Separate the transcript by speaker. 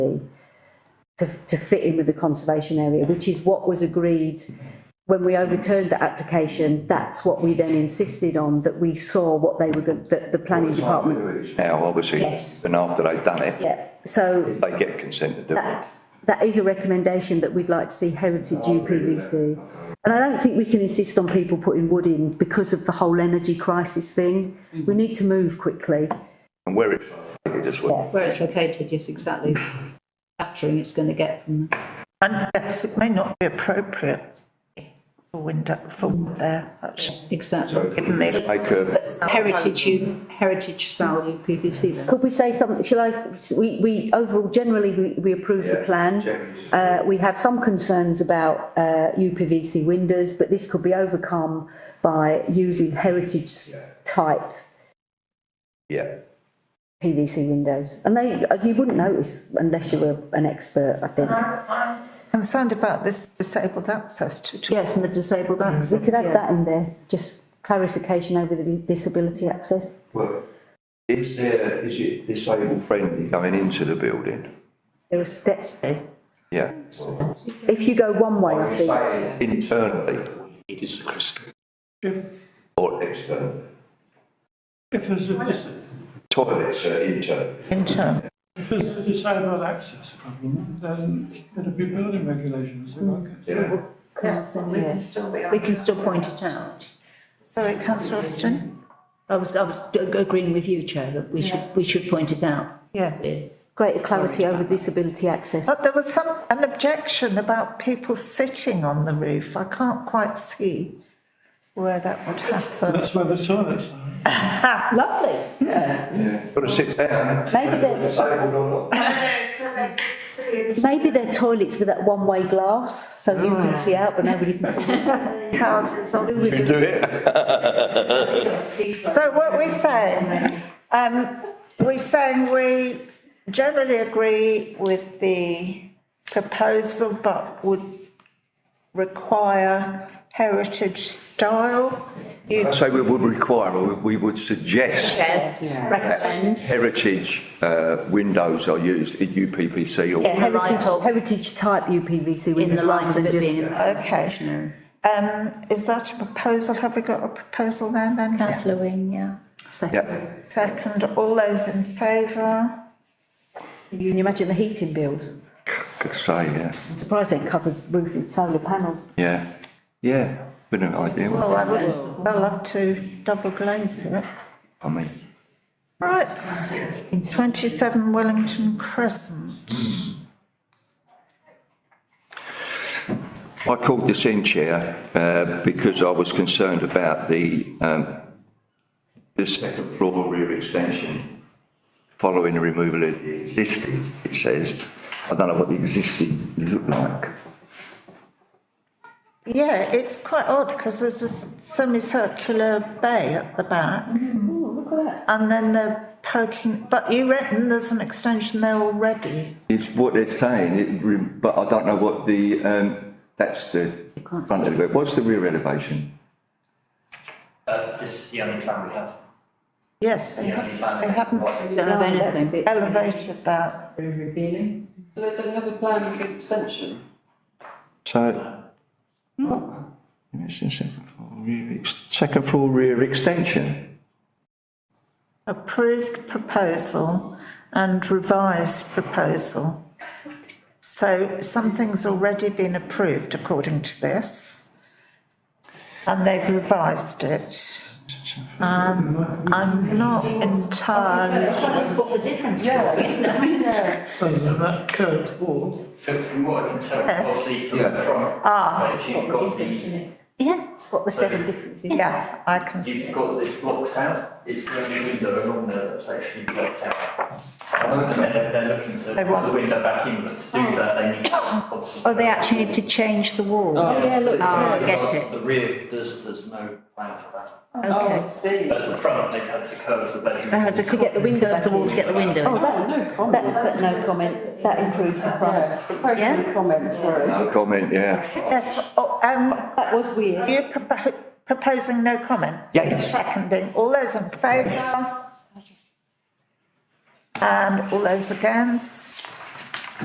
Speaker 1: to, to fit in with the conservation area, which is what was agreed when we overturned the application, that's what we then insisted on, that we saw what they were, go- that the planning department.
Speaker 2: Now, obviously,
Speaker 1: Yes.
Speaker 2: and after they've done it,
Speaker 1: Yeah, so
Speaker 2: they get consent to do it.
Speaker 1: that, that is a recommendation that we'd like to see heritage UPVC. And I don't think we can insist on people putting wood in because of the whole energy crisis thing. We need to move quickly.
Speaker 2: And where it's located as well.
Speaker 3: Where it's located, yes, exactly. Battering it's going to get from.
Speaker 4: And yes, it may not be appropriate for window, for wood there, actually.
Speaker 3: Exactly.
Speaker 4: Given the-
Speaker 2: Make a,
Speaker 3: Heritage, U- heritage style UPVC then.
Speaker 1: Could we say something, shall I, we, we, overall, generally, we, we approve the plan. Uh, we have some concerns about, uh, UPVC windows, but this could be overcome by using heritage type
Speaker 2: yeah,
Speaker 1: PVC windows. And they, uh, you wouldn't notice unless you were an expert, I think.
Speaker 4: Concerned about this disabled access to, to
Speaker 3: Yes, and the disabled access.
Speaker 1: We could add
Speaker 3: yeah.
Speaker 1: that in there, just clarification over the disability access.
Speaker 2: Well, is there, is it disabled friendly going into the building?
Speaker 1: There are steps.
Speaker 2: Yeah.
Speaker 1: If you go one way, I think,
Speaker 2: Internally
Speaker 5: It is the crystal.
Speaker 2: or externally?
Speaker 5: If there's a, dis-
Speaker 2: Toilets are internal.
Speaker 4: interim.
Speaker 5: if there's a disabled access problem, then it'll be building regulations, I guess.
Speaker 2: Yeah.
Speaker 4: Yes, but we can still be.
Speaker 3: We can still point it out.
Speaker 4: Sorry, councillor Austin?
Speaker 3: I was, I was ag- agreeing with you, Chair, that we should, we should point it out.
Speaker 4: Yeah.
Speaker 1: greater clarity over disability access.
Speaker 4: But there was some, an objection about people sitting on the roof. I can't quite see where that would happen.
Speaker 5: That's where the toilets are.
Speaker 3: Ah,
Speaker 1: Lovely.
Speaker 2: Got to sit down.
Speaker 1: Maybe they're,
Speaker 2: Disabled or not?
Speaker 1: Maybe they're toilets with that one-way glass, so you
Speaker 3: Ah.
Speaker 1: can see out, but nobody can see.
Speaker 4: Houses on
Speaker 2: You can do it.
Speaker 4: So what we're saying, um, we're saying we generally agree with the proposal, but would require heritage style. You
Speaker 2: I'd say we would require, or we would suggest that heritage, uh, windows are used in UPPC or.
Speaker 1: Yeah, heritage,
Speaker 3: light of-
Speaker 1: heritage type UPVC
Speaker 3: In the
Speaker 1: windows
Speaker 3: light
Speaker 1: rather
Speaker 3: of it
Speaker 1: than
Speaker 3: being.
Speaker 1: just.
Speaker 3: a
Speaker 4: Okay.
Speaker 3: stationary.
Speaker 4: Um, is that a proposal? Have we got a proposal there then?
Speaker 6: Councillor Wing, yeah.
Speaker 3: Second.
Speaker 2: Yeah,
Speaker 4: Second, all those in favour?
Speaker 1: Can you imagine the heating bills?
Speaker 2: could say, yeah,
Speaker 1: I'm surprised they ain't covered roof with solar panels.
Speaker 2: yeah, yeah, been an idea,
Speaker 4: Well, I would, I love to double glaze it.
Speaker 2: I mean.
Speaker 4: Right, twenty-seven Wellington Crescent.
Speaker 2: I called this in, Chair, uh, because I was concerned about the, um, the second floor rear extension following the removal of the existing, it says. I don't know what the existing looked like.
Speaker 4: Yeah, it's quite odd because there's a s- semicircular bay at the back. And then they're poking, but you reckon there's an extension there already?
Speaker 2: It's what they're saying, it, re- but I don't know what the, um, that's the front elevation. What's the rear elevation?
Speaker 7: Uh, this is the only plan we have.
Speaker 4: Yes, they
Speaker 7: Yeah,
Speaker 4: haven't,
Speaker 7: it's like-
Speaker 4: they haven't
Speaker 3: Don't have anything.
Speaker 4: elevated that.
Speaker 8: So they don't have a plan for extension?
Speaker 2: So. It's the second floor rear, ex- second floor rear extension.
Speaker 4: Approved proposal and revised proposal. So something's already been approved according to this. And they've revised it. Um, I'm not entirely.
Speaker 5: Doesn't that curved wall,
Speaker 7: From, from what I can tell,
Speaker 4: Yes.
Speaker 7: obviously from
Speaker 2: Yeah.
Speaker 7: the front,
Speaker 4: Ah.
Speaker 7: space, you've got the,
Speaker 1: Yeah. What the seven differences.
Speaker 4: Yeah, I can see.
Speaker 7: you've got this blocked out. It's the only window along there that's actually blocked out. And they're, they're looking to
Speaker 4: They
Speaker 7: put
Speaker 4: want-
Speaker 7: the window back in, but to do that, they need.
Speaker 6: Oh, they actually need to change the wall.
Speaker 7: yeah, look.
Speaker 8: Oh,
Speaker 6: Ah, I get it.
Speaker 7: Uh, The rear, there's, there's no plan for that.
Speaker 8: Oh, I see.
Speaker 7: But at the front, they've had to curve the bedroom.
Speaker 6: They had to get the window, the wall to get the window.
Speaker 8: Oh,
Speaker 6: in.
Speaker 8: that, no
Speaker 1: That,
Speaker 8: comment.
Speaker 1: that's no comment, that improves the front.
Speaker 8: Yeah, proposed
Speaker 6: Yeah.
Speaker 8: comment, sorry.
Speaker 2: No comment, yeah.
Speaker 4: Yes, oh, um,
Speaker 1: That was weird.
Speaker 4: you're propo- proposing no comment?
Speaker 2: Yes.
Speaker 4: Seconding, all those in favour? And all those against?